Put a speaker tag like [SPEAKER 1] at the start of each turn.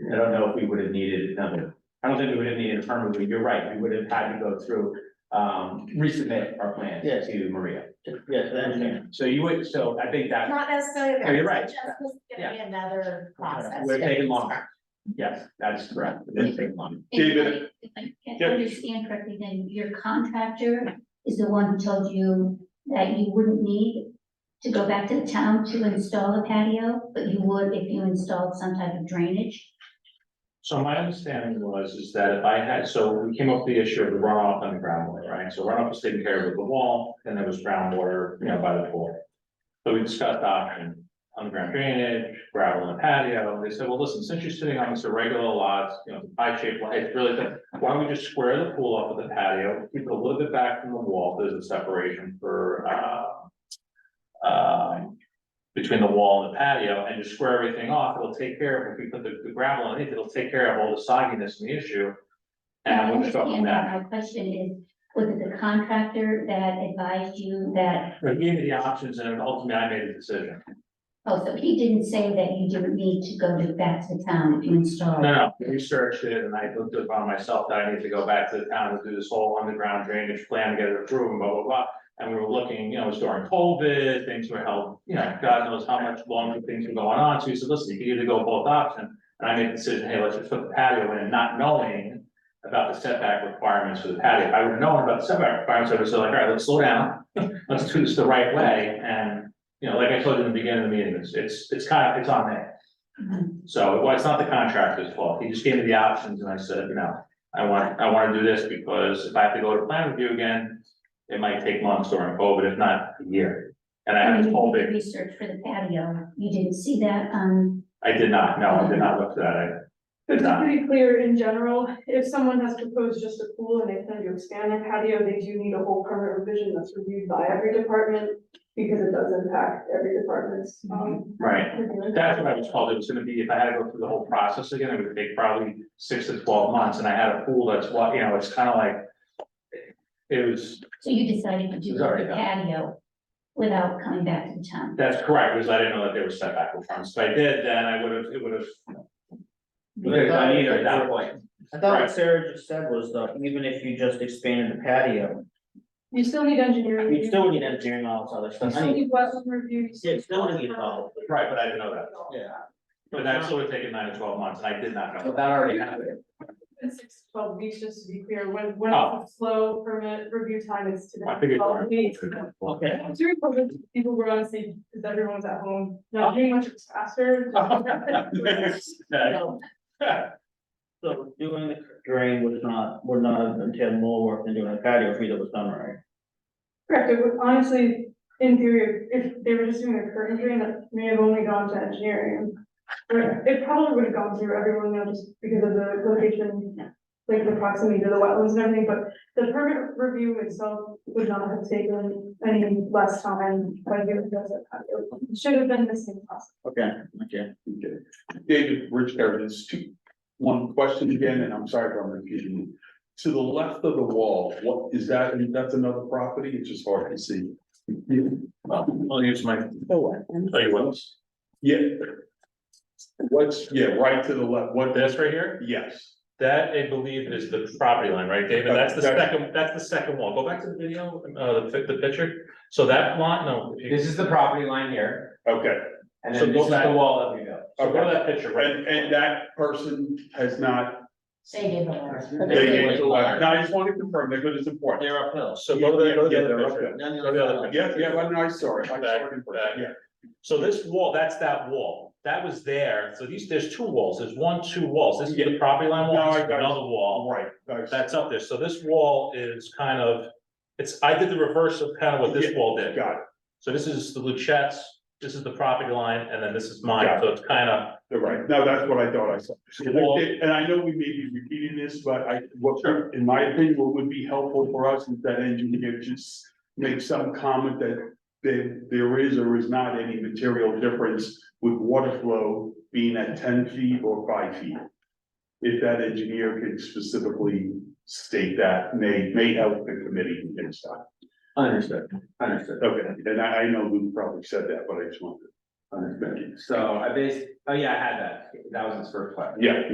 [SPEAKER 1] I don't know if we would have needed another, I don't think we would have needed a permit, but you're right, we would have had to go through, um, resubmit our plan
[SPEAKER 2] Yes.
[SPEAKER 1] to Maria.
[SPEAKER 2] Yes, I understand.
[SPEAKER 1] So you would, so I think that,
[SPEAKER 3] Not necessarily.
[SPEAKER 1] No, you're right.
[SPEAKER 3] Just was gonna be another process.
[SPEAKER 1] We're taking longer. yes, that's correct, it didn't take long.
[SPEAKER 4] David. If I if I understand correctly, then your contractor is the one who told you that you wouldn't need to go back to the town to install a patio, but you would if you installed some type of drainage?
[SPEAKER 1] So my understanding was is that if I had, so we came up with the issue of the runoff and the groundwater, right? So runoff was taken care of with the wall, and there was groundwater, you know, by the pool. So we discussed option, underground drainage, gravel and patio, they said, well, listen, since you're sitting on this irregular lot, you know, pie shaped, lot, it's really thin. Why don't we just square the pool off with the patio, keep it a little bit back from the wall, there's a separation for, uh. Uh, between the wall and the patio and just square everything off, it'll take care of, if we put the the gravel in it, it'll take care of all the sogginess and the issue. And we'll just go from
[SPEAKER 4] understand
[SPEAKER 1] that.
[SPEAKER 4] uh, My question is, was it the contractor that advised you that,
[SPEAKER 1] They gave me the options and ultimately I made the decision.
[SPEAKER 4] oh, so he didn't say that you didn't need to go to back to the town if you
[SPEAKER 1] No,
[SPEAKER 4] installed?
[SPEAKER 1] no, I researched it and I looked upon myself that I need to go back to the town and do this whole underground drainage plan, get it approved and blah, blah, blah. And we were looking, you know, it was during COVID, things were held, you know, God knows how much longer things were going on. So he said, listen, you can either go both options. And I made the decision, hey, let's just put the patio in, not knowing about the setback requirements for the patio. If I would have known about the setback requirements, I would have said like, all right, let's slow down. Let's do this the right way. And, you know, like I told you in the beginning of the meeting, it's, it's, it's kind of, it's on me.
[SPEAKER 4] Mhm.
[SPEAKER 1] So, well, it's not the contractor's fault. He just gave me the options and I said, you know, I want, I want to do this because if I have to go to plan review again, it might take months during COVID, if not a year. And I
[SPEAKER 4] And
[SPEAKER 1] had
[SPEAKER 4] you
[SPEAKER 1] told
[SPEAKER 4] did
[SPEAKER 1] it,
[SPEAKER 4] research for the patio, you didn't see that, um,
[SPEAKER 1] I did not, no, I did not look at that. I
[SPEAKER 5] But
[SPEAKER 1] did
[SPEAKER 5] to be
[SPEAKER 1] not.
[SPEAKER 5] pretty clear, in general, if someone has proposed just a pool and they plan to expand their patio, they do need a whole permit revision that's reviewed by every department. Because it does impact every department's, um.
[SPEAKER 1] Right.
[SPEAKER 5] review.
[SPEAKER 1] Mm-hmm. That's what I was told. It was gonna be, if I had to go through the whole process again, it would take probably six to twelve months and I had a pool that's what, you know, it's kind of like. It was,
[SPEAKER 4] so you decided to do
[SPEAKER 1] It's already
[SPEAKER 4] the
[SPEAKER 1] done.
[SPEAKER 4] patio without coming back to the town?
[SPEAKER 1] that's correct, because I didn't know that there was setback requirements. If I did, then I would have, it would have. at that point.
[SPEAKER 2] I thought what Sarah just said was though, even if you just expanded the patio,
[SPEAKER 5] You still need engineering.
[SPEAKER 2] you
[SPEAKER 5] review.
[SPEAKER 2] still need engineering all this
[SPEAKER 5] You
[SPEAKER 2] other stuff. I
[SPEAKER 5] still
[SPEAKER 2] mean,
[SPEAKER 5] need wetland review. you
[SPEAKER 2] Yeah, you still need it all.
[SPEAKER 1] Right, but I didn't know that.
[SPEAKER 2] yeah.
[SPEAKER 1] But that's sort of taken nine to twelve months, and I did not know.
[SPEAKER 2] But that already happened.
[SPEAKER 5] It's six to twelve weeks, just to be clear, when, when
[SPEAKER 1] Oh.
[SPEAKER 5] it's a slow permit review time is today.
[SPEAKER 1] I figured.
[SPEAKER 5] Twelve weeks.
[SPEAKER 2] Okay.
[SPEAKER 5] During COVID, people were honestly, because everyone was at home,
[SPEAKER 1] Oh.
[SPEAKER 5] not doing much it's faster.
[SPEAKER 2] So doing the drain would not, would not entail more work than doing the patio if either was done right.
[SPEAKER 5] Correct, it would honestly, in theory, if they were just doing a curtain drain, that may have only gone to engineering. Or it probably would have gone through everyone now just because of the location, like the proximity to the wetlands and everything, but the permit review itself would not have taken any less time when you does it. It should have been the same process.
[SPEAKER 2] Okay, okay.
[SPEAKER 4] Okay.
[SPEAKER 6] David Rich there's two, one question again, and I'm sorry if I'm repeating. you. To the left of the wall, what is that, I mean, that's another property, it's just hard to see.
[SPEAKER 1] I'll use my, oh, you want this?
[SPEAKER 6] Yeah. What's, yeah, right to the left, what,
[SPEAKER 1] This right here,
[SPEAKER 6] yes,
[SPEAKER 1] that I believe is the property line, right, David? That's the
[SPEAKER 6] That's-
[SPEAKER 1] second, that's the second wall. Go back to the video, uh, the, fi- the picture. So that lot, no. This is the property line here,
[SPEAKER 6] okay,
[SPEAKER 1] and
[SPEAKER 6] then this is the
[SPEAKER 1] wall that we built. So go to that picture, right?
[SPEAKER 6] and, and that person has not,
[SPEAKER 3] They gave a letter.
[SPEAKER 6] they gave, no, I just wanted to confirm, because it's important.
[SPEAKER 2] They're uphill.
[SPEAKER 1] So go to, the- go to
[SPEAKER 6] Yeah,
[SPEAKER 1] the
[SPEAKER 6] yeah,
[SPEAKER 1] other
[SPEAKER 6] they're
[SPEAKER 1] picture.
[SPEAKER 6] up
[SPEAKER 2] None
[SPEAKER 1] Go to the other picture.
[SPEAKER 6] Yeah, yeah, I know, I saw it, I saw it in
[SPEAKER 1] Back,
[SPEAKER 6] person, yeah,
[SPEAKER 1] So this wall, that's that wall, that was there, so these, there's two walls, there's one, two walls, this is the property line
[SPEAKER 6] No,
[SPEAKER 1] wall,
[SPEAKER 6] I
[SPEAKER 1] this is
[SPEAKER 6] got it.
[SPEAKER 1] another wall.
[SPEAKER 6] all right. I-
[SPEAKER 1] That's up there, so this wall is kind of, it's, I did the reverse of kind of what this
[SPEAKER 6] Yeah,
[SPEAKER 1] wall did.
[SPEAKER 6] Got it,
[SPEAKER 1] So this is the Luchettes, this is the property line, and then this is mine,
[SPEAKER 6] Got
[SPEAKER 1] so it's kind of,
[SPEAKER 6] You're right, no, that's what I thought I saw.
[SPEAKER 1] Well-
[SPEAKER 6] And I know we may be repeating this, but I, what, in my opinion, what would be helpful for us is that engineer just make some comment that there, there is or is not any material difference with water flow being at ten feet or five feet. If that engineer could specifically state that, may, may help the committee next time.
[SPEAKER 1] Understood, understood.
[SPEAKER 6] Okay, and I, I know Lou probably said that, but I just wanted to understand.
[SPEAKER 1] So I based, oh yeah, I had that, that was his first question.
[SPEAKER 6] Yeah,